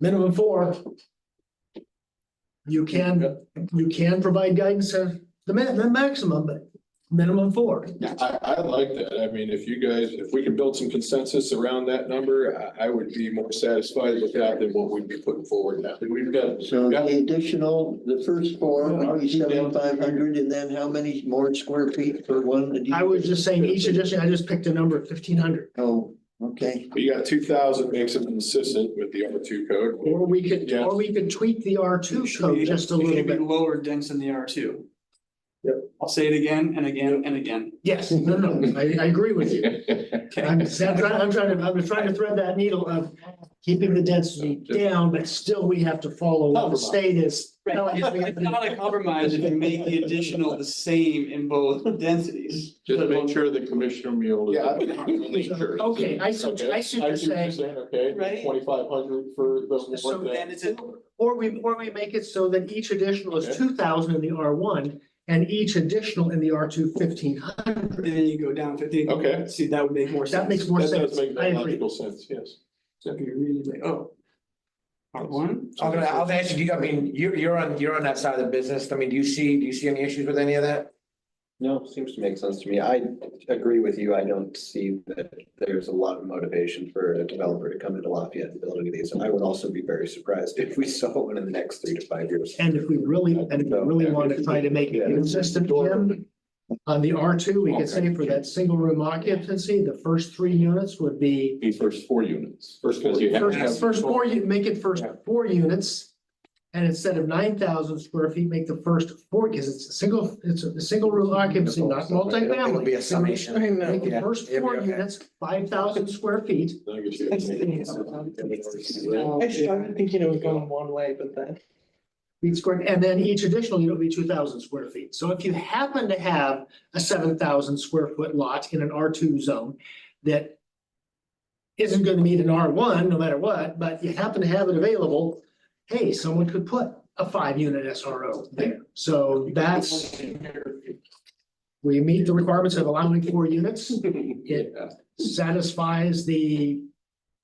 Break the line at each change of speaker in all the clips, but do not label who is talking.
Minimum four. You can, you can provide guidance of the ma- the maximum, but minimum four.
I, I like that. I mean, if you guys, if we can build some consensus around that number, I, I would be more satisfied with that than what we'd be putting forward now. We've got,
So the additional, the first four, are we seventy-five hundred and then how many more square feet for one?
I was just saying each addition, I just picked a number of fifteen hundred.
Oh, okay.
we got two thousand makes it consistent with the R two code.
Or we could, or we could tweak the R two code just a
It
little
should be
bit.
Lower dense than the R two. Yep. I'll say it again and again and again.
Yes, no, no, I, I agree with you.
Okay,
I'm, I'm trying, I'm trying to, I'm trying to thread that needle of keeping the density down, but still we have to follow what the state is.
Right, it's it's not a compromise if you make the additional the same in both densities.
Just make sure the commissioner meal. is-
Yeah.
Okay, I see, I see what you're saying.
Okay,
Right.
twenty-five hundred for the.
So then it's a,
Or we, or we make it so that each additional is two thousand in the R one and each additional in the R two fifteen hundred.
then you go down fifteen.
Okay.
See, that would make more sense.
That makes more
That
sense.
does make
I agree.
logical sense, yes.
That'd be really like, oh. R one?
I'm gonna, I'll ask you, do you, I mean, you're, you're on, you're on that side of the business. I mean, do you see, do you see any issues with any of that?
No, seems to make sense to me. I agree with you. I don't see that there's a lot of motivation for a developer to come into Lafayette and build any of these. And I would also be very surprised if we saw one in the next three to five years.
And if we really, and if we really want to try to make it consistent, Jim, on the R two, we could say for that single room occupancy, the first three units would be
Be first four units.
First, because you have to
first,
have.
first four, you make it first four units. And instead of nine thousand square feet, make the first four, because it's a single, it's a single room occupancy, not
It'll be
multifamily.
a summation.
Make the
Yeah,
first
it'll
four
be okay.
units, five thousand square feet.
I get you.
I started thinking it was going
one way, but then.
feet square, and then each additional unit will be two thousand square feet. So if you happen to have a seven thousand square foot lot in an R two zone that isn't gonna meet an R one, no matter what, but you happen to have it available, hey, someone could put a five unit SRO there. So that's, we meet the requirements of allowing four units. It satisfies the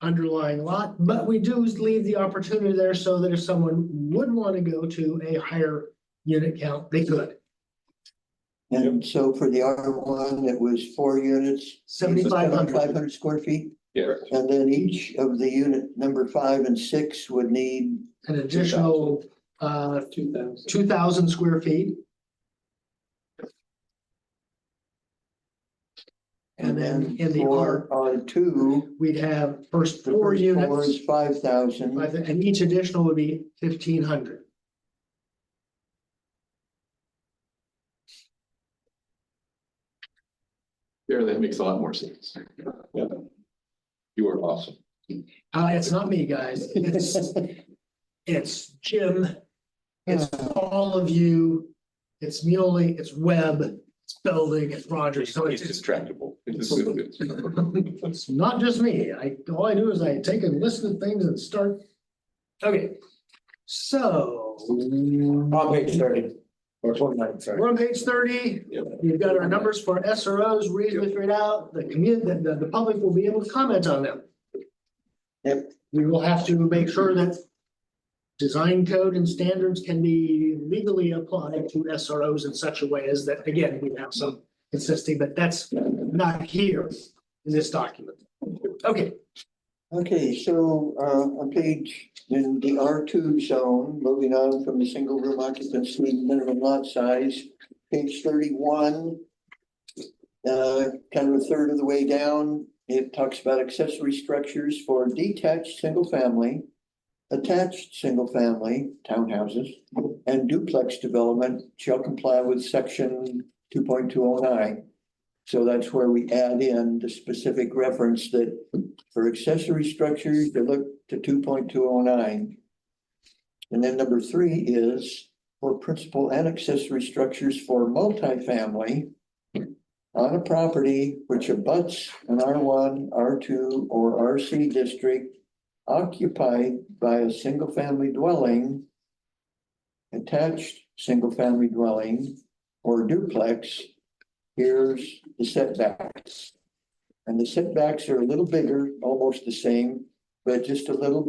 underlying lot, but we do leave the opportunity there so that if someone would want to go to a higher unit count, they could.
And so for the R one, it was four units.
7,500.
Five hundred square feet.
Yeah.
And then each of the unit number five and six would need
An additional uh
Two thousand.
two thousand square feet. And then in the
for
R,
R two.
we'd have first
the
four
first Four
units,
is five thousand.
five- and each additional would be fifteen hundred.
There, that makes a lot more sense. Yeah. You are awesome.
Uh, it's not me, guys. It's, it's Jim. It's all of you. It's Muley, it's Webb, it's Belding, it's Rogers. So it's, it's,
distractible.
it's not just me. I, all I do is I take a list of things and start. Okay, so
On page thirty, or twenty-nine, sorry.
we're on page thirty.
Yep.
You've got our numbers for SROs reasonably figured out. The community, the, the- the public will be able to comment on them.
Yep.
We will have to make sure that design code and standards can be legally applied to SROs in such a way as that, again, we have some consistency, but that's not here in this document. Okay,
Okay, so uh, on page, in the R two zone, moving on from the single room occupancy minimum lot size, page thirty-one. Uh, kind of a third of the way down, it talks about accessory structures for detached, single family. Attached, single family townhouses and duplex development shall comply with section two point two oh nine. So that's where we add in the specific reference that for accessory structures, they look to two point two oh nine. And then number three is for principal and accessory structures for multifamily on a property which abuts an R one, R two, or RC district occupied by a single-family dwelling, attached single-family dwelling or duplex, here's the setbacks. And the setbacks are a little bigger, almost the same, but just a little bit.